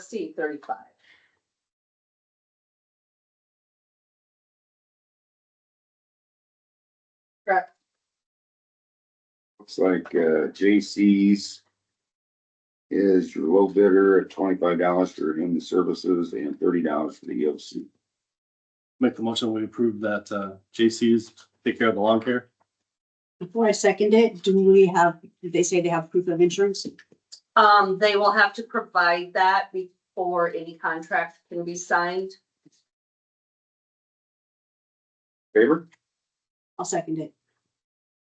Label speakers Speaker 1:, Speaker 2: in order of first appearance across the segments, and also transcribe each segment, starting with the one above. Speaker 1: C thirty-five.
Speaker 2: Looks like uh, J.C.'s is your low bidder at twenty-five dollars for human services and thirty dollars for the E EOC.
Speaker 3: Make the motion, we approve that uh, J.C.'s take care of the lawn care.
Speaker 4: Before I second it, do we have, did they say they have proof of insurance?
Speaker 1: Um, they will have to provide that before any contract can be signed.
Speaker 2: Favor?
Speaker 4: I'll second it.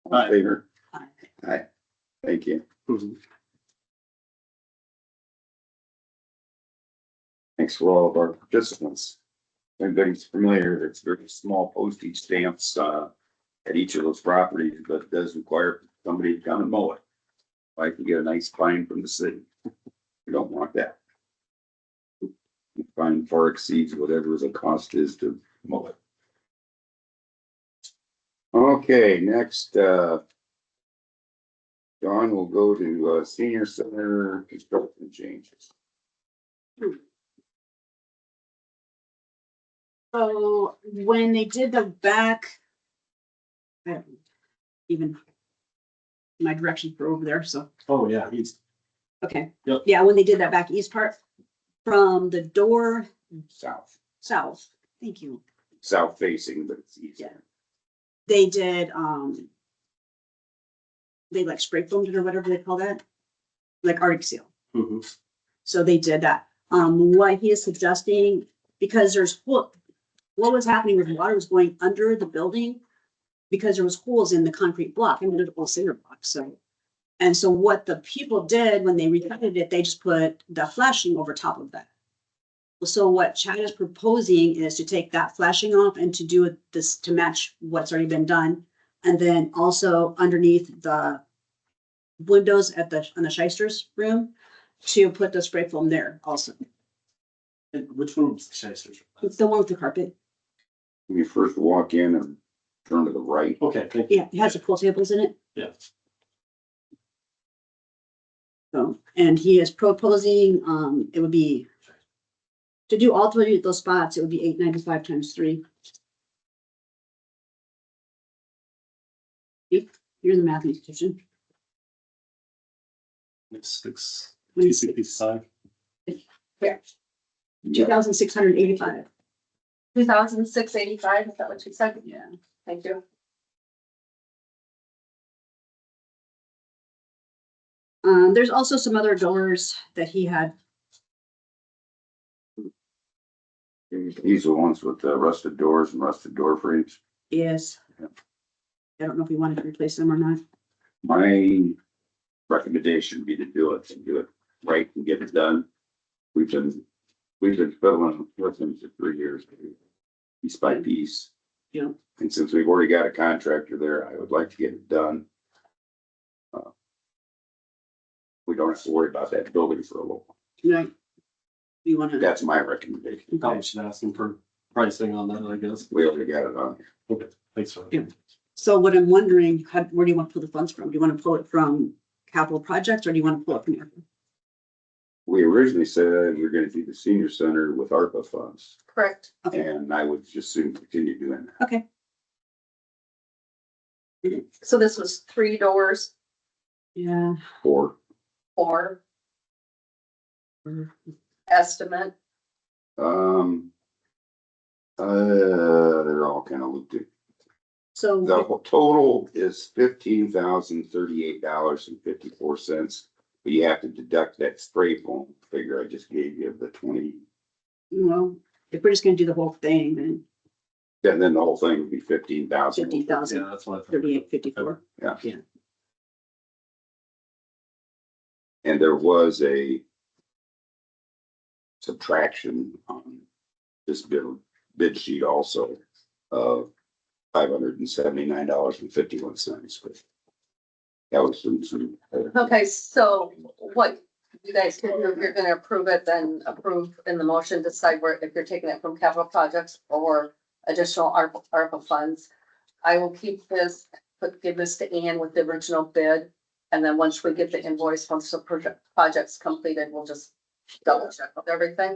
Speaker 2: All in Favor?
Speaker 4: Aye.
Speaker 2: Aye. Thank you. Thanks for all of our participants. Everybody's familiar, it's very small postage stamps uh, at each of those properties, but it does require somebody to come and mow it. I can get a nice fine from the city. We don't want that. The Fine far exceeds whatever the cost is to mow it. Okay, next, uh, Dawn will go to uh, senior center construction changes.
Speaker 4: So when they did the back. I don't Even. My directions were over there, so,
Speaker 3: Oh, yeah, he's,
Speaker 4: okay.
Speaker 3: Yep.
Speaker 4: Yeah, when they did that back east part, from the door
Speaker 2: South,
Speaker 4: south, thank you,
Speaker 2: south facing, but it's easier.
Speaker 4: they did, um. They like spray foamed it or whatever they call that, like Arctic seal.
Speaker 3: Mhm.
Speaker 4: So they did that. Um, what he is suggesting, because there's what, what was happening was water was going under the building because there was holes in the concrete block, and it was cinder block, so. And so what the people did when they recovered it, they just put the flashing over top of that. So what Chad is proposing is to take that flashing off and to do it this, to match what's already been done. And then also underneath the windows at the, on the Shysters room, to put the spray foam there also.
Speaker 3: And which one was the Shysters?
Speaker 4: It's the one with the carpet.
Speaker 2: When you first walk in and turn to the right,
Speaker 3: Okay, thank you.
Speaker 4: Yeah, it has the pool tables in it.
Speaker 3: Yeah.
Speaker 4: So, and he is proposing, um, it would be to do all three of those spots, it would be eight ninety-five times three. You're the mathematician.
Speaker 3: Six, two
Speaker 4: Two
Speaker 3: sixty-five.
Speaker 4: thousand six hundred eighty-five.
Speaker 1: Two thousand six eighty-five, is that what you said?
Speaker 4: Yeah.
Speaker 1: Thank you.
Speaker 4: Um, there's also some other doors that he had.
Speaker 2: these are the ones with the rusted doors and rusted door frames.
Speaker 4: Yes. I don't know if we wanted to replace them or not.
Speaker 2: My recommendation would be to do it and do it right and get it done. We've been, we've been fiddling with them for three years, piece by piece.
Speaker 4: Yeah.
Speaker 2: And since we've already got a contractor there, I would like to get it done. Uh, We don't have to worry about that building for a little. while.
Speaker 4: Right. You wanna?
Speaker 2: That's my recommendation.
Speaker 3: Probably should ask him for pricing on that, I guess.
Speaker 2: We already got it on.
Speaker 3: Okay, thanks for.
Speaker 4: Yeah. So what I'm wondering, how, where do you want to pull the funds from? Do you want to pull it from capital projects or do you want to pull it from? here?
Speaker 2: We originally said we were gonna do the senior center with ARPA funds,
Speaker 1: Correct.
Speaker 4: Okay,
Speaker 2: and I would just soon continue doing that.
Speaker 4: okay,
Speaker 1: So this was three doors
Speaker 4: yeah.
Speaker 2: Or,
Speaker 1: or
Speaker 4: or-
Speaker 1: estimate.
Speaker 2: um, uh, they're all kind of looped in. The
Speaker 4: So,
Speaker 2: whole total is fifteen thousand thirty-eight dollars and fifty-four cents, but you have to deduct that spray foam figure I just gave you of the twenty,
Speaker 4: well, if we're just gonna do the whole thing, then
Speaker 2: and then the whole thing would be fifteen thousand.
Speaker 4: fifty
Speaker 3: Yeah,
Speaker 4: thousand,
Speaker 3: that's what I thought.
Speaker 4: thirty-eight, fifty-four.
Speaker 2: And there was a subtraction on this bid, bid sheet also of five hundred and seventy-nine dollars and fifty-one cents. That was some, some.
Speaker 1: Okay, so what you guys, can do, if you're gonna approve it, then approve in the motion, decide where, if you're taking it from capital projects or additional ARPA, ARPA funds. I will keep this, but give this to Ann with the original bid. And then once we get the invoice, once the project, project's completed, we'll just double check with everything.